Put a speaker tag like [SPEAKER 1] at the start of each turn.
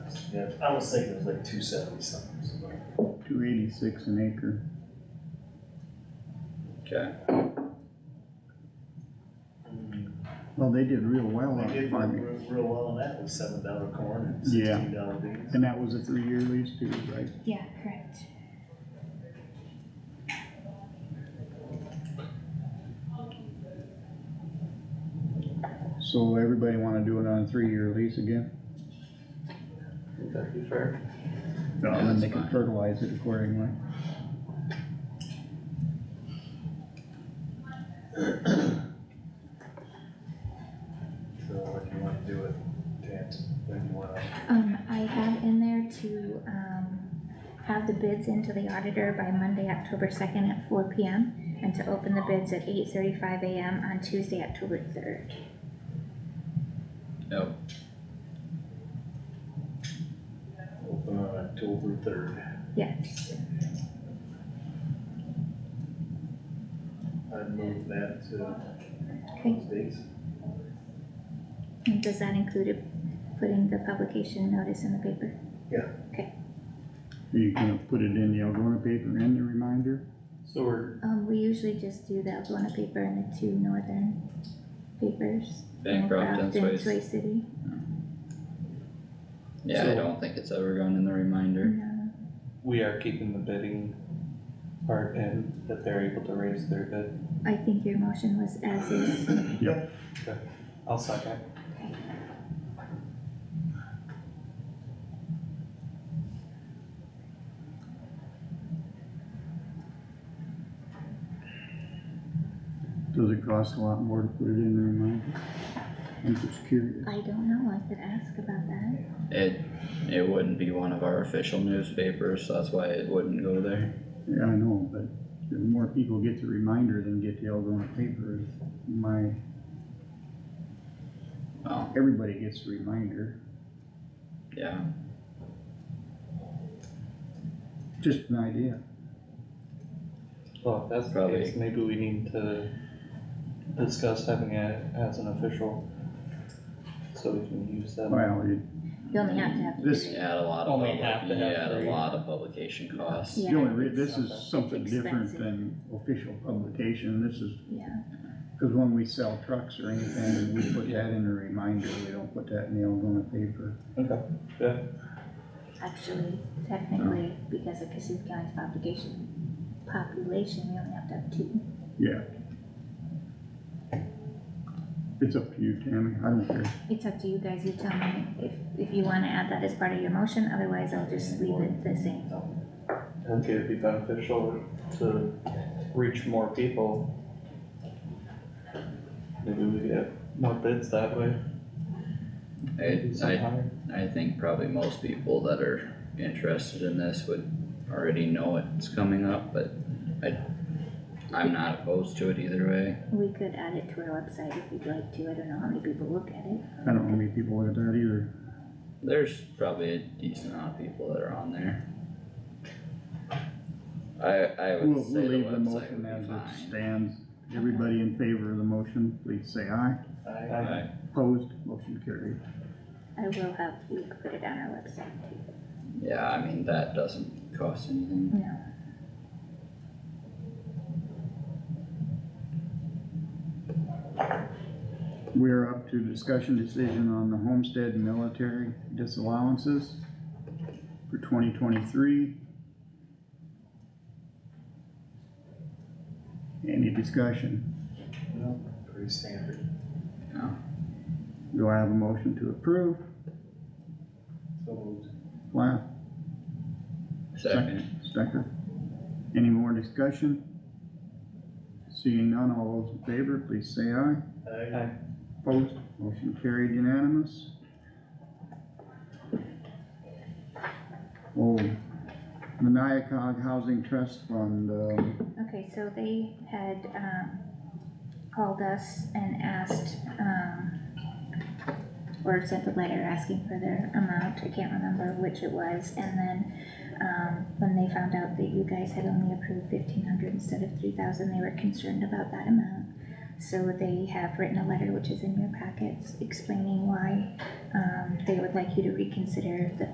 [SPEAKER 1] Yeah, I was thinking it was like two seventy something. so like-
[SPEAKER 2] two eighty-six an acre.
[SPEAKER 3] Okay.
[SPEAKER 2] Well, they did real well
[SPEAKER 1] They
[SPEAKER 2] on
[SPEAKER 1] did real,
[SPEAKER 2] farming,
[SPEAKER 1] real- real well on that with seven dollar corn and
[SPEAKER 2] Yeah.
[SPEAKER 1] sixteen dollar beans.
[SPEAKER 2] and that was a three-year lease too, right?
[SPEAKER 4] Yeah, correct.
[SPEAKER 2] So everybody wanna do it on a three-year lease again?
[SPEAKER 5] That'd be fair.
[SPEAKER 3] No,
[SPEAKER 2] And then
[SPEAKER 3] that's
[SPEAKER 2] they can
[SPEAKER 3] fine.
[SPEAKER 2] fertilize it accordingly.
[SPEAKER 1] So if you wanna do it, Dan, then you wanna,
[SPEAKER 4] Um, I have in there to, um, have the bids into the auditor by Monday, October second at four P M. And to open the bids at eight thirty-five A M on Tuesday, October third.
[SPEAKER 3] Yep,
[SPEAKER 1] open on October third.
[SPEAKER 4] Yes,
[SPEAKER 1] I'd move that to
[SPEAKER 4] okay,
[SPEAKER 1] those dates.
[SPEAKER 4] and does that include it- putting the publication notice in the paper?
[SPEAKER 2] Are you gonna put it in the Algonah paper and the reminder?
[SPEAKER 5] So we're,
[SPEAKER 4] Um, we usually just do the Algonah paper and the two northern papers.
[SPEAKER 3] bankrupt and
[SPEAKER 4] Bancroft and
[SPEAKER 3] Swayze.
[SPEAKER 4] Sway City.
[SPEAKER 3] Yeah, I
[SPEAKER 5] So-
[SPEAKER 3] don't think it's ever gone in the reminder.
[SPEAKER 4] No.
[SPEAKER 5] we are keeping the bidding part in, that they're able to raise their bid.
[SPEAKER 4] I think your motion was as is.
[SPEAKER 5] I'll second.
[SPEAKER 2] Does it cost a lot more to put it in the reminder? I'm just curious.
[SPEAKER 4] I don't know, I could ask about that.
[SPEAKER 3] It, it wouldn't be one of our official newspapers, so that's why it wouldn't go there.
[SPEAKER 2] Yeah, I know, but the more people get the reminder than get the Algonah paper is my,
[SPEAKER 3] Well,
[SPEAKER 2] everybody gets the reminder.
[SPEAKER 3] yeah,
[SPEAKER 2] Just an idea.
[SPEAKER 5] Well, if that's the
[SPEAKER 3] Probably.
[SPEAKER 5] case, maybe we need to discuss having it as an official. So we can use that.
[SPEAKER 2] Well, you,
[SPEAKER 4] You only have to have
[SPEAKER 2] this,
[SPEAKER 3] you add a lot of
[SPEAKER 5] Only
[SPEAKER 3] public,
[SPEAKER 5] have
[SPEAKER 3] you
[SPEAKER 5] to have
[SPEAKER 3] add a
[SPEAKER 5] three.
[SPEAKER 3] lot of publication costs.
[SPEAKER 4] Yeah.
[SPEAKER 2] the only re- this is
[SPEAKER 5] It's
[SPEAKER 2] something different
[SPEAKER 4] expensive.
[SPEAKER 2] than official publication. This is,
[SPEAKER 4] Yeah,
[SPEAKER 2] cause when we sell trucks or anything, we put that in a reminder. We don't put that in the Algonah paper.
[SPEAKER 5] Okay,
[SPEAKER 4] actually, technically, because of Cassuth County's population, population, we only have to have two.
[SPEAKER 2] Yeah. It's up to you, Tammy. I don't care.
[SPEAKER 4] It's up to you guys, you tell me if, if you wanna add that as part of your motion, otherwise I'll just leave it the same.
[SPEAKER 5] I think it'd be beneficial to reach more people. Maybe we get more bids that way.
[SPEAKER 3] I,
[SPEAKER 5] Maybe some
[SPEAKER 3] I,
[SPEAKER 5] higher.
[SPEAKER 3] I think probably most people that are interested in this would already know it's coming up, but I, I'm not opposed to it either way.
[SPEAKER 4] We could add it to our website if you'd like to, I don't know how many people look at it.
[SPEAKER 2] I don't know how many people look at that either.
[SPEAKER 3] There's probably a decent amount of people that are on there. I, I
[SPEAKER 2] We'll,
[SPEAKER 3] would say
[SPEAKER 2] we'll
[SPEAKER 3] the
[SPEAKER 2] leave the
[SPEAKER 3] website
[SPEAKER 2] motion
[SPEAKER 3] would
[SPEAKER 2] as
[SPEAKER 3] be
[SPEAKER 2] it
[SPEAKER 3] fine.
[SPEAKER 2] stands. Everybody in favor of the motion, please say aye.
[SPEAKER 1] I,
[SPEAKER 3] I-
[SPEAKER 2] Opposed, motion carried.
[SPEAKER 4] I will have you put it on our website too.
[SPEAKER 3] Yeah, I mean, that doesn't cost anything.
[SPEAKER 4] No.
[SPEAKER 2] We're up to discussion decision on the homestead military disallowances for twenty twenty-three. Any discussion?
[SPEAKER 1] no, pretty standard.
[SPEAKER 3] No.
[SPEAKER 2] Do I have a motion to approve?
[SPEAKER 1] So moved.
[SPEAKER 2] Plath,
[SPEAKER 3] Second,
[SPEAKER 2] Stecker? Any more discussion? Seeing none, all those in favor, please say aye.
[SPEAKER 1] I,
[SPEAKER 2] Opposed, motion carried unanimous. Oh, Maniacog Housing Trust Fund, um,
[SPEAKER 4] Okay, so they had, um, called us and asked, um, or sent a letter asking for their amount, I can't remember which it was, and then, um, when they found out that you guys had only approved fifteen hundred instead of three thousand, they were concerned about that amount. So they have written a letter, which is in your packets, explaining why, um, they would like you to reconsider the